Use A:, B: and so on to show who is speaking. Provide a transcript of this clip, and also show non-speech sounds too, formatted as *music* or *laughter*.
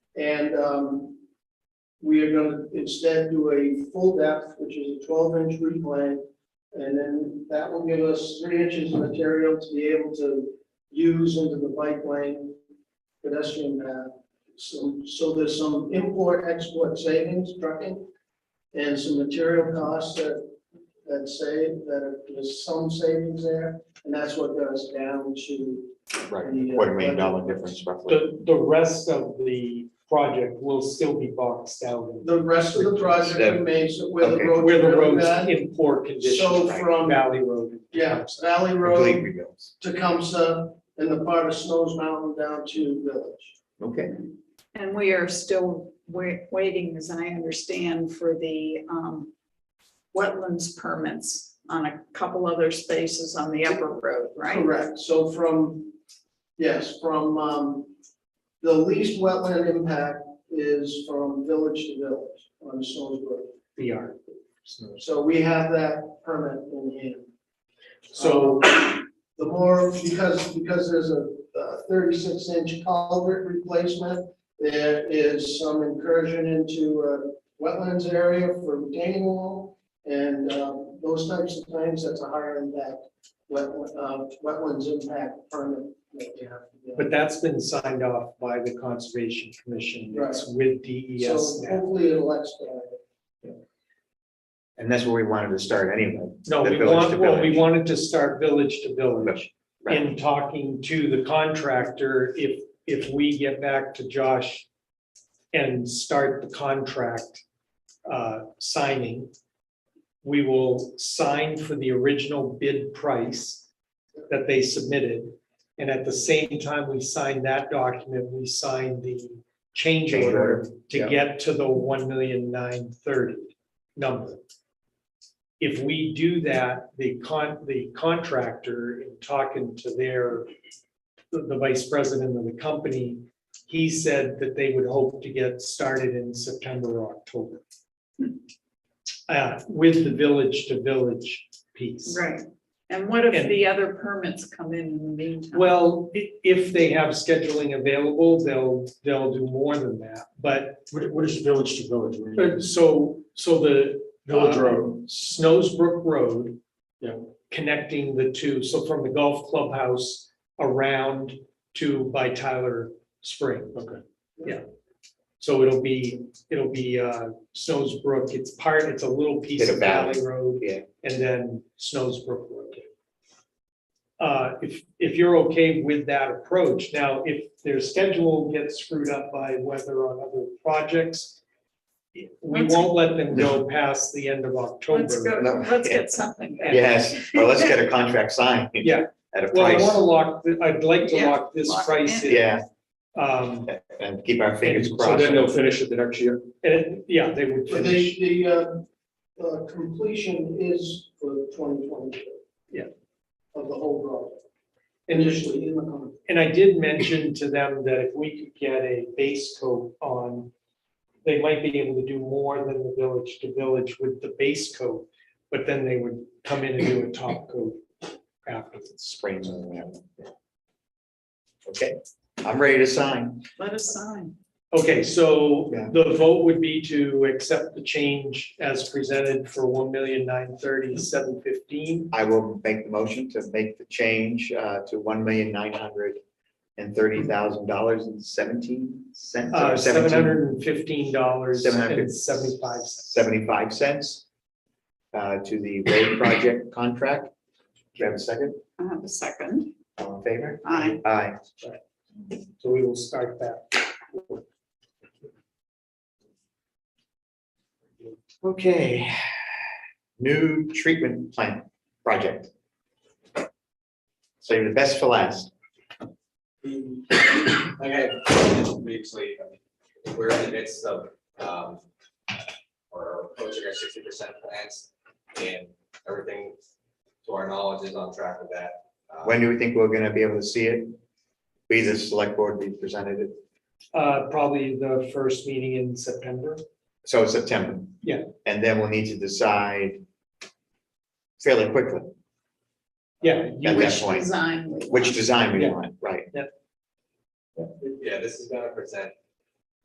A: And um, we are gonna instead do a full depth, which is a twelve inch replant. And then that will give us three inches of material to be able to use into the bike lane pedestrian path. So, so there's some import export savings trucking and some material costs that, that save, that there's some savings there. And that's what goes down to
B: Right, quarter million dollar difference roughly.
C: uh, The, the rest of the project will still be boxed out in-
A: the rest of the project
B: Step.
A: remains where the
B: Okay.
A: road.
C: where the road's
A: bed,
C: in poor condition.
A: So
C: right,
A: from-
C: Valley Road.
A: Yeah, Valley
B: Complete
A: Road,
B: rebuilds.
A: Tecumseh, and the part of Snows Mountain down to Village.
B: Okay,
D: And we are still wa- waiting, as I understand, for the um, wetlands permits on a couple other spaces on the upper road, right?
A: Correct, so from, yes, from, um, the least wetland impact is from village to village on Snows Road.
C: The art. So-
A: So we have that permit in hand.
C: So,
A: Um, The more, because, because there's a uh, thirty-six inch culvert replacement, there is some incursion into a wetlands area for retaining wall. And uh, those types of things, that's a higher impact, wet- uh, wetlands impact permit that you have to get.
C: but that's been signed off by the Conservation Commission. It's with DES
A: So
C: now.
A: hopefully it'll expedite it.
B: and that's where we wanted to start anyway.
C: No,
B: the
C: we
B: village to
C: want, well, we
B: village.
C: wanted to start village to village.
B: Right.
C: In talking to the contractor, if, if we get back to Josh and start the contract uh, signing, we will sign for the original bid price that they submitted. And at the same time we sign that document, we sign the change
B: Change
C: order
B: order,
C: to
B: yeah.
C: get to the one million nine thirty number. If we do that, the con, the contractor, in talking to their, the the vice president of the company, he said that they would hope to get started in September or October. Uh, with the village to village piece.
D: Right. And what if
C: And-
D: the other permits come in in the meantime?
C: Well, i- if they have scheduling available, they'll, they'll do more than that, but,
E: What, what is village to village? What do you mean?
C: but so, so the.
E: Village
C: uh,
E: road.
C: Snowsbrook Road.
E: Yeah.
C: Connecting the two, so from the golf clubhouse around to by Tyler Spring.
E: Okay.
C: Yeah. So it'll be, it'll be, uh, Snowsbrook, it's part, it's a little piece
B: Bit of
C: of
B: valley.
C: Valley Road.
B: Yeah.
C: And then Snowsbrook Road. Uh, if, if you're okay with that approach, now, if their schedule gets screwed up by weather on other projects, we
D: Let's-
C: won't let them go past the end of
D: Let's
C: October.
D: go,
B: No.
D: let's get something. done.
B: Yes, well, let's
C: *laughs*
B: get a contract signed.
C: Yeah.
B: At a
C: Well, I
B: price,
C: wanna lock, th- I'd like to
D: Yeah,
C: lock this
D: lock it
C: price in.
B: yeah,
C: Um,
B: and keep our fingers
E: So
B: crossed.
E: then they'll finish it the next year?
C: and, yeah, they would
A: But
C: finish,
A: the, the, uh, uh, completion is for twenty twenty-two.
C: Yeah.
A: Of the whole project,
C: and
A: initially in the contract.
C: And I did mention to them that if we could get a base coat on, they might be able to do more than the village to village with the base coat, but then they would come in and do a top coat afterwards.
B: Springs and whatever. Okay, I'm ready to sign.
D: Let us sign.
C: Okay, so
B: Yeah.
C: the vote would be to accept the change as presented for one million nine thirty seven fifteen.
B: I will make the motion to make the change uh, to one million nine hundred and thirty thousand dollars and seventeen cents.
C: Uh, seven hundred and fifteen dollars and seventy-five cents.
B: Seventy-five cents uh, to the road project contract. Do you have a second?
D: I have a second.
B: All in favor?
D: Aye.
B: Aye.
C: So we will start that.
B: Okay. New treatment plant project. Saving the best for last.
F: Like I mentioned previously, we're in the midst of, um, or approaching our sixty percent plans, and everything to our knowledge is on track with that. Uh,
B: When do we think we're gonna be able to see it? Be the select board, we presented it,
C: Uh, probably the first meeting in September.
B: so it's September.
C: Yeah.
B: And then we'll need to decide fairly quickly
C: Yeah, you
B: at
C: would,
B: that point,
D: Design.
B: which design we
C: Yeah.
B: want, right?
F: Yeah, Um, this is gonna present